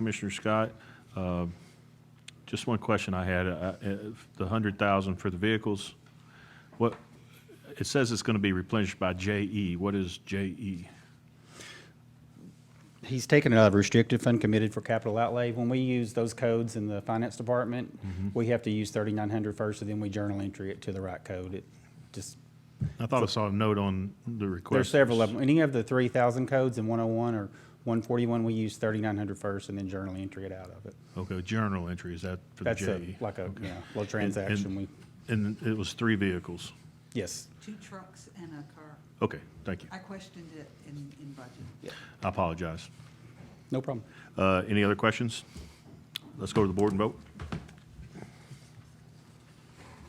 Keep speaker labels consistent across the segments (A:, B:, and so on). A: Commissioner Scott. Uh, Just one question I had, uh, if the 100,000 for the vehicles, what, it says it's going to be replenished by JE. What is E? JE?
B: He's taken out of restricted fund committed for capital outlay. When we use those codes in the finance department,
A: Mm-hmm.
B: we have to use 3,900 first, and then we journal entry it to the right code. It just,
A: I thought I saw a note on the request.
B: there's several of them. Any of the 3,000 codes in 101 or 141, we use 3,900 first and then journal entry it out of it.
A: Okay, journal entry, is that for the
B: That's a-
A: JE?
B: like a,
A: Okay.
B: you know, little transaction. We,
A: And it was three vehicles.
B: yes.
C: Two trucks and a car.
A: Okay, thank you.
C: I questioned it in, in budget.
A: I apologize.
B: No problem.
A: Uh, Any other questions? Let's go to the board and vote.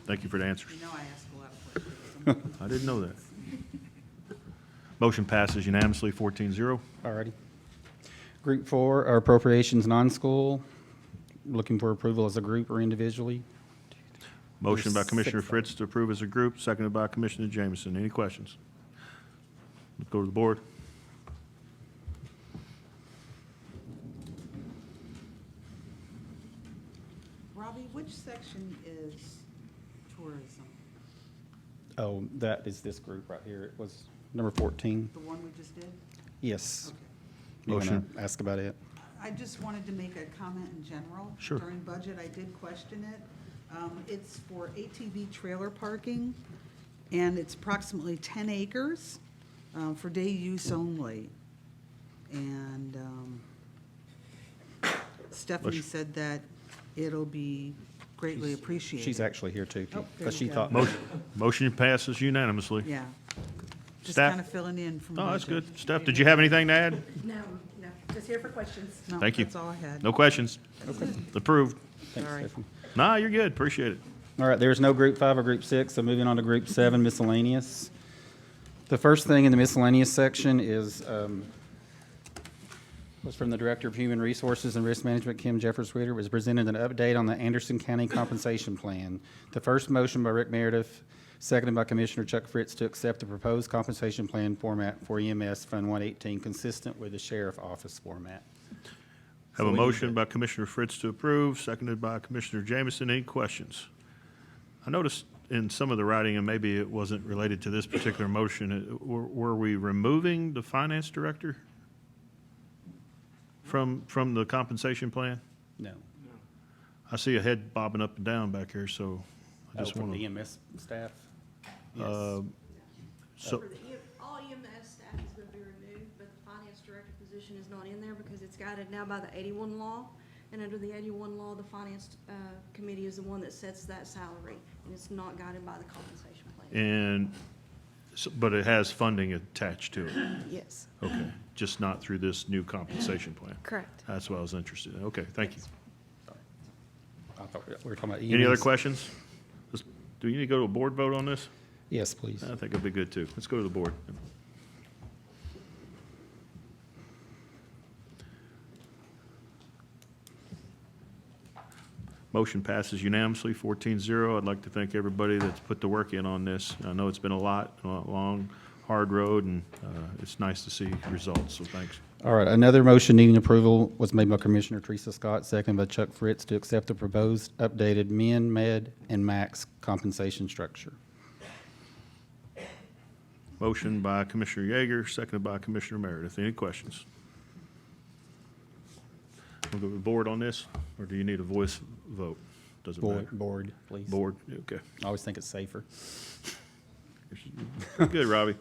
A: Thank you for the answers.
C: You know I ask a lot of questions.
A: I didn't know that. Motion passes unanimously, 14-0.
B: Alrighty. Group four, our appropriations non-school, looking for approval as a group or individually.
A: Motion by
B: There's
A: Commissioner
B: six of
A: Fritz to approve as a group, seconded by Commissioner Jameson. Any questions? Let's go to the board.
C: Robbie, which section is tourism?
B: Oh, that is this group right here. It was number 14.
C: The one we just did?
B: Yes.
C: Okay.
B: You wanna
A: Motion.
B: Ask about it.
C: I just wanted to make a comment in general.
A: Sure.
C: During budget, I did question it. Um, It's for ATV trailer parking, and it's approximately 10 acres um, for day use only. And um, Stephanie
A: Motion.
C: said that it'll be greatly appreciated.
B: She's actually here too,
C: Oh, there
B: because she
C: you go.
B: thought.
A: Motion motion passes unanimously.
C: Yeah. Just
A: Staff-
C: kind of filling in from budget.
A: Oh, that's good. Steph, did you have anything to add?
D: No, no, just here for questions.
C: No,
A: Thank you.
C: That's all I had.
A: No questions? Approved.
B: Thanks,
C: Sorry.
B: Stephanie.
A: Nah, you're good. Appreciate it.
B: All right, there's no group five or group six, so moving on to group seven miscellaneous. The first thing in the miscellaneous section is, um, was from the Director of Human Resources and Risk Management, Kim Jeffers Witter, was presented an update on the Anderson County Compensation Plan. The first motion by Rick Meredith, seconded by Commissioner Chuck Fritz to accept the proposed compensation plan format for EMS Fund 118, consistent with the Sheriff Office format.
A: Have
B: So
A: a
B: we need
A: motion by Commissioner Fritz to approve, seconded by Commissioner Jameson. Any questions? I noticed in some of the writing, and maybe it wasn't related to this particular motion, it- were were we removing the finance director from, from the compensation plan?
B: No.
A: I see a head bobbing up and down back here, so I
B: Oh,
A: just
B: from
A: want
B: the
A: to.
B: EMS staff?
A: Uh,
B: Yes.
A: So,
D: For the E- All EMS staff is gonna be removed, but the finance director position is not in there because it's guided now by the eighty-one law. And under the eighty-one law, the finance, uh, committee is the one that sets that salary, and it's not guided by the compensation plan.
A: and, so- but it has funding attached to it,
D: Yes,
A: okay, just not through this new compensation plan.
D: correct.
A: That's what I was interested in. Okay, thank you.
B: I thought we were talking about E EMS.
A: Any other questions? Let's- Do you need to go to a board vote on this?
B: Yes, please.
A: I think it'd be good, too. Let's go to the board. Motion passes unanimously, 14-0. I'd like to thank everybody that's put the work in on this. I know it's been a lot, a long, hard road, and uh, it's nice to see results, so thanks.
B: All right, another motion needing approval was made by Commissioner Teresa Scott, second by Chuck Fritz, to accept the proposed updated min, med, and max compensation structure.
A: Motion by Commissioner Yeager, seconded by Commissioner Meredith. Any questions? We'll go to the board on this, or do you need a voice vote? Doesn't
B: Board,
A: matter.
B: board, please.
A: Board, okay.
B: I always think it's safer.
A: Good, Robbie.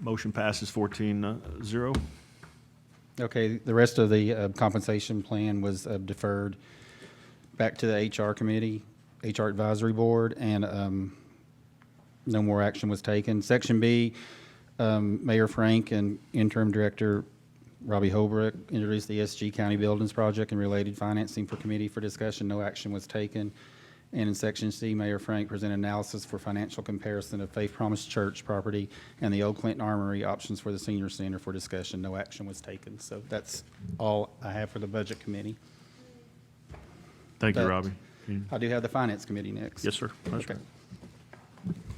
A: Motion passes uh, 14-0.
B: Okay, the rest of the uh, compensation plan was uh, deferred back to the HR committee, HR advisory board, and um, no more action was taken. Section B, um, Mayor Frank and interim director Robbie Holbrook introduced the SG County Buildings Project and related financing for committee for discussion. No action was taken. And in section C, Mayor Frank presented analysis for financial comparison of Faith Promise Church property and the Old Clinton Armory options for the senior center for discussion. No action was taken. So that's all I have for the budget committee.
A: Thank you,
B: That-
A: Robbie.
B: I do have the finance committee next.
A: Yes, sir. That's
B: Okay.
A: right.